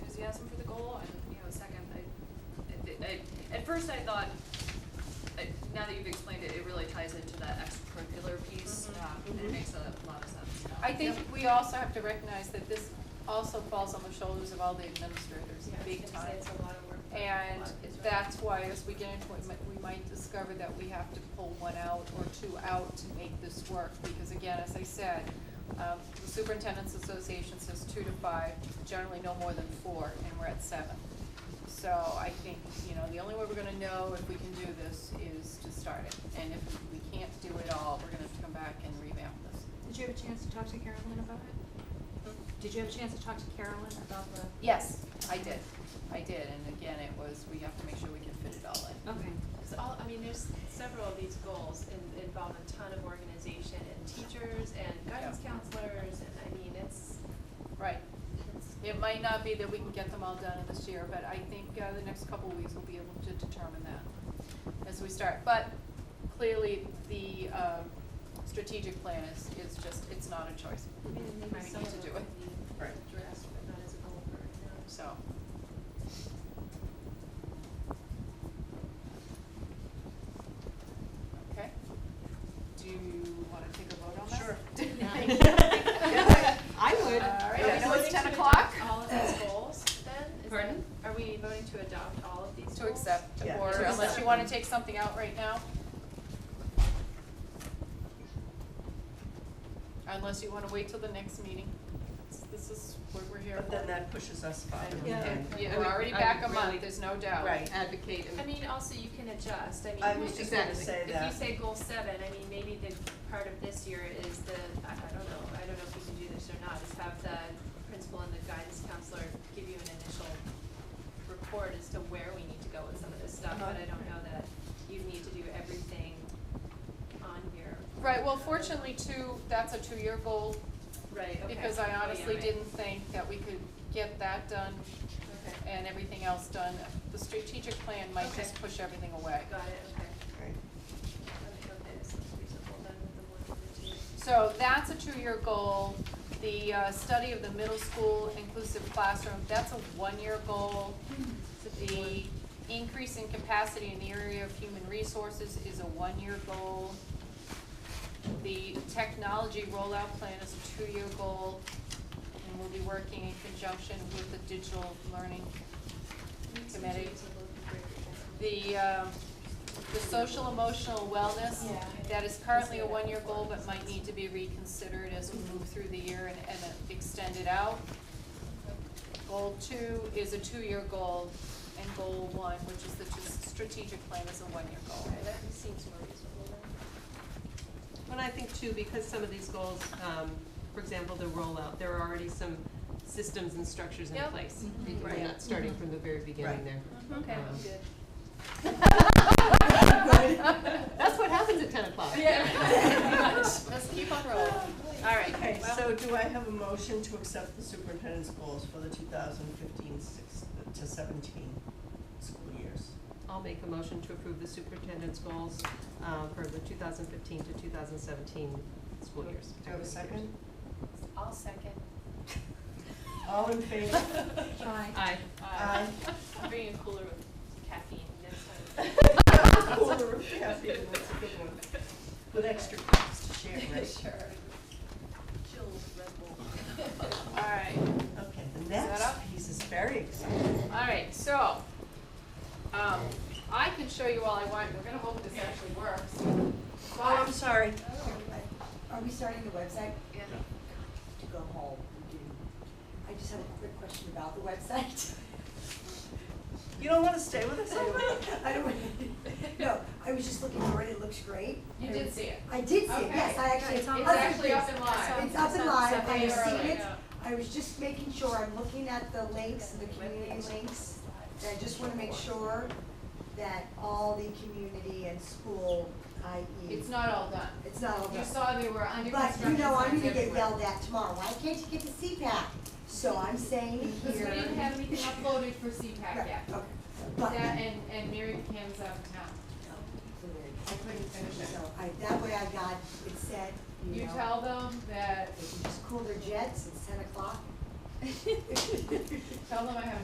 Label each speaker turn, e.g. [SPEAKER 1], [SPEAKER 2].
[SPEAKER 1] Mm-hmm. it makes a lot of sense.
[SPEAKER 2] I think we also have to recognize that this also falls on the shoulders of all the administrators,
[SPEAKER 1] Yeah, I was
[SPEAKER 2] big
[SPEAKER 1] gonna say
[SPEAKER 2] time.
[SPEAKER 1] It's a lot of work. for a
[SPEAKER 2] And
[SPEAKER 1] lot of kids, right?
[SPEAKER 2] that's why as we get into it, mi- we might discover that we have to pull one out or two out to make this work. Because again, as I said, um, the superintendent's association says two to five, generally no more than four, and we're at seven. So I think, you know, the only way we're gonna know if we can do this is to start it. And if we can't do it all, we're gonna have to come back and revamp this.
[SPEAKER 3] Did you have a chance to talk to Carolyn about it? Did you have a chance to talk to Carolyn about the?
[SPEAKER 2] Yes, I did, I did, and again, it was, we have to make sure we can fit it all in.
[SPEAKER 3] Okay.
[SPEAKER 1] It's all, I mean, there's several of these goals in- involve a ton of organization and teachers and guidance
[SPEAKER 2] Yeah.
[SPEAKER 1] counselors and I mean, it's,
[SPEAKER 2] Right.
[SPEAKER 1] it's
[SPEAKER 2] It might not be that we can get them all done in this year, but I think uh, the next couple of weeks we'll be able to determine that as we start. But clearly, the um, strategic plan is, is just, it's not a choice.
[SPEAKER 1] I mean,
[SPEAKER 2] I
[SPEAKER 1] maybe
[SPEAKER 2] need
[SPEAKER 1] some
[SPEAKER 2] to
[SPEAKER 1] of
[SPEAKER 2] do
[SPEAKER 1] them
[SPEAKER 2] it.
[SPEAKER 1] could be
[SPEAKER 2] Right.
[SPEAKER 1] addressed, but not as a goal for right now.
[SPEAKER 2] So, okay. Do you want to take a vote on that?
[SPEAKER 4] Sure.
[SPEAKER 2] Sure.
[SPEAKER 3] I would.
[SPEAKER 2] All right,
[SPEAKER 1] Are we
[SPEAKER 2] I know it's
[SPEAKER 1] voting to
[SPEAKER 2] 10 o'clock.
[SPEAKER 1] adopt all of these goals then? Is
[SPEAKER 3] Pardon?
[SPEAKER 1] that- Are we voting to adopt all of these goals?
[SPEAKER 2] To accept,
[SPEAKER 4] Yeah.
[SPEAKER 2] or
[SPEAKER 1] To
[SPEAKER 2] unless you
[SPEAKER 1] accept.
[SPEAKER 2] want to take something out right now? Unless you want to wait till the next meeting. It's- This is what we're here
[SPEAKER 4] But
[SPEAKER 2] for.
[SPEAKER 4] then that pushes us farther
[SPEAKER 3] Yeah.
[SPEAKER 4] behind.
[SPEAKER 2] Yeah, We're
[SPEAKER 5] I would-
[SPEAKER 2] already
[SPEAKER 5] I
[SPEAKER 2] back a
[SPEAKER 5] would really-
[SPEAKER 2] month, there's no doubt.
[SPEAKER 4] Right.
[SPEAKER 5] advocate
[SPEAKER 1] I
[SPEAKER 5] and
[SPEAKER 1] mean, also you can adjust, I mean.
[SPEAKER 4] I was just gonna
[SPEAKER 5] Exactly.
[SPEAKER 4] say
[SPEAKER 1] If you
[SPEAKER 4] that,
[SPEAKER 1] say goal seven, I mean, maybe the part of this year is the, I, I don't know, I don't know if we can do this or not, is have the principal and the guidance counselor give you an initial report as to where we need to go with some of this stuff, but I don't know that you need to do everything on here.
[SPEAKER 2] Right, well fortunately too, that's a two-year goal,
[SPEAKER 1] Right, okay.
[SPEAKER 2] because I
[SPEAKER 1] Oh, yeah,
[SPEAKER 2] honestly
[SPEAKER 1] right.
[SPEAKER 2] didn't think that we could get that done
[SPEAKER 1] Okay,
[SPEAKER 2] and everything else done. The strategic plan might
[SPEAKER 1] Okay.
[SPEAKER 2] just push everything away.
[SPEAKER 1] got it, okay.
[SPEAKER 4] right.
[SPEAKER 1] Okay, okay, this looks reasonable then with the one and the two.
[SPEAKER 2] So that's a two-year goal. The uh, study of the middle school inclusive classroom, that's a one-year goal. The increase in capacity in the area of human resources is a one-year goal. The technology rollout plan is a two-year goal, and we'll be working in conjunction with the digital learning
[SPEAKER 1] These
[SPEAKER 2] Committee.
[SPEAKER 1] two are looking great.
[SPEAKER 2] the, um, the social emotional wellness,
[SPEAKER 1] Yeah.
[SPEAKER 2] that is currently a one-year goal, but might need to be reconsidered as we move through the year and, and extend it out. Goal two is a two-year goal, and goal one, which is the t- strategic plan, is a one-year goal.
[SPEAKER 1] Okay, that seems more reasonable then.
[SPEAKER 5] But I think too, because some of these goals, um, for example, the rollout, there are already some systems and structures in
[SPEAKER 1] Yep.
[SPEAKER 5] place.
[SPEAKER 1] Mhm.
[SPEAKER 5] We're not starting from the very beginning
[SPEAKER 4] Right.
[SPEAKER 5] there.
[SPEAKER 1] Okay,
[SPEAKER 5] Um,
[SPEAKER 1] good.
[SPEAKER 5] That's what happens at ten o'clock.
[SPEAKER 2] Yeah. Let's keep on rolling. All right.
[SPEAKER 4] Okay,
[SPEAKER 2] well-
[SPEAKER 4] so do I have a motion to accept the superintendent's goals for the 2015-16 to seventeen school years?
[SPEAKER 5] I'll make a motion to approve the superintendent's goals, uh, for the two thousand fifteen to two thousand seventeen school years.
[SPEAKER 4] Do I have a second?
[SPEAKER 1] I'll second.
[SPEAKER 4] All in favor?
[SPEAKER 5] Aye.
[SPEAKER 4] Aye.
[SPEAKER 1] I'm bringing a cooler with caffeine next time.
[SPEAKER 4] Cool, yeah, that's a good one. With extra cups to share, right?
[SPEAKER 1] Sure. Chilled Red Bull.
[SPEAKER 2] All right.
[SPEAKER 4] Okay, the
[SPEAKER 2] that
[SPEAKER 4] next
[SPEAKER 2] up?
[SPEAKER 4] piece is very exciting.
[SPEAKER 2] All right, so, um, I can show you all I want, we're gonna hope this actually works.
[SPEAKER 4] Oh, I'm sorry.
[SPEAKER 6] Are we starting the website
[SPEAKER 1] Yeah.
[SPEAKER 6] to go home? and do- I just have a quick question about the website.
[SPEAKER 4] You don't wanna stay with us
[SPEAKER 6] I
[SPEAKER 4] anymore?
[SPEAKER 6] don't, I don't, no, I was just looking for it, it looks great.
[SPEAKER 2] You did see it.
[SPEAKER 6] I did see it, yes, I actually.
[SPEAKER 2] It's
[SPEAKER 6] other
[SPEAKER 2] actually up
[SPEAKER 6] things-
[SPEAKER 2] and live.
[SPEAKER 6] It's up and live, I
[SPEAKER 2] It's
[SPEAKER 6] have
[SPEAKER 2] up
[SPEAKER 6] seen
[SPEAKER 2] early.
[SPEAKER 6] it, I was just making sure, I'm looking at the links, the community links, and I just wanna make sure that all the community and school, i.e.
[SPEAKER 2] It's not all done.
[SPEAKER 6] It's not all
[SPEAKER 2] You
[SPEAKER 6] done.
[SPEAKER 2] saw they were under
[SPEAKER 6] But
[SPEAKER 2] construction.
[SPEAKER 6] you know, I'm
[SPEAKER 2] signs
[SPEAKER 6] gonna get
[SPEAKER 2] everywhere.
[SPEAKER 6] yelled at tomorrow, why can't you get the CPAC? So I'm saying here.
[SPEAKER 2] Because we didn't have anything uploaded for CPAC
[SPEAKER 6] Right,
[SPEAKER 2] yet.
[SPEAKER 6] okay. But,
[SPEAKER 2] That and, and Mary Kim's out of town. I couldn't finish it.
[SPEAKER 6] so I, that way I got, it said, you
[SPEAKER 2] You
[SPEAKER 6] know,
[SPEAKER 2] tell them that,
[SPEAKER 6] they can just cool their jets, it's ten o'clock.
[SPEAKER 2] tell them I have